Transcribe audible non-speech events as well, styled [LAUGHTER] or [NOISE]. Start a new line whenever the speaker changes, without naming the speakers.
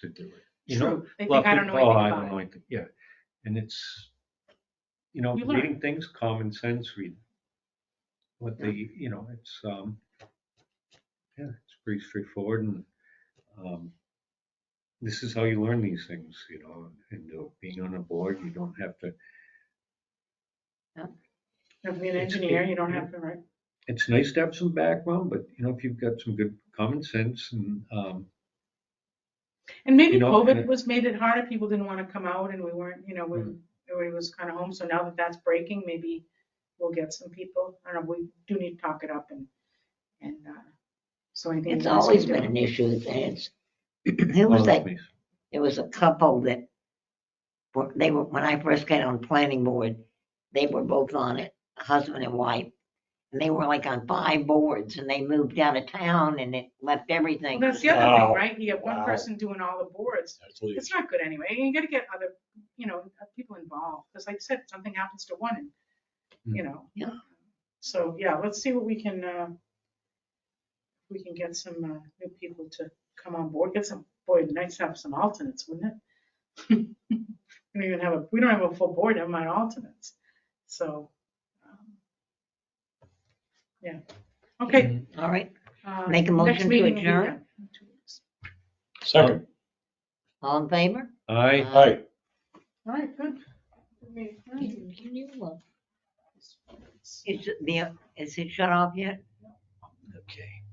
to do it. You know,
True. They think I don't know
Well, oh, I
anything
don't
about
know
it.
anything, yeah. And it's, you know,
You learn.
reading things common sense, read what the, you know, it's, um, yeah, it's pretty straightforward and, um, this is how you learn these things, you know, and uh, being on a board, you don't have to,
If you're an
It's-
engineer, you don't have to write.
it's nice to have some background, but you know, if you've got some good common sense and, um,
And maybe
You know, and
COVID
it-
was made it harder. People didn't want to come out and we weren't, you know, we,
Mm.
everybody was kind of home. So now that that's breaking, maybe we'll get some people. I don't know, we do need to talk it up and, and, uh, so I think.
It's
that's what
always
we're
been
doing.
an issue. It's, it was
well,
that,
please.
there was a couple that were, they were, when I first got on planning board, they were both on it, husband and wife. And they were like on five boards and they moved out of town and it left
Well,
everything.
that's the other thing,
Wow.
right? You have one
Wow.
person doing all the boards.
That's what
It's not good anyway. You gotta get other, you know, uh, people involved. Cause like I said, something happens to one and, you know.
Yeah.
So, yeah, let's see what we can, uh, we can get some, uh, new people to come on board. Get some, boy, it'd be nice to have some alternates, wouldn't it? [LAUGHS] We don't even have a, we don't have a full board, never mind alternates. So, um, yeah. Okay.
All right,
uh,
Make
next
a motion to
meeting will be
adjourn?
done in two weeks.
Second.
all in favor? Uh,
I,
Hi.
All right, good. We-
Can- can you, uh, Is it, the- is it shut off yet?
Okay.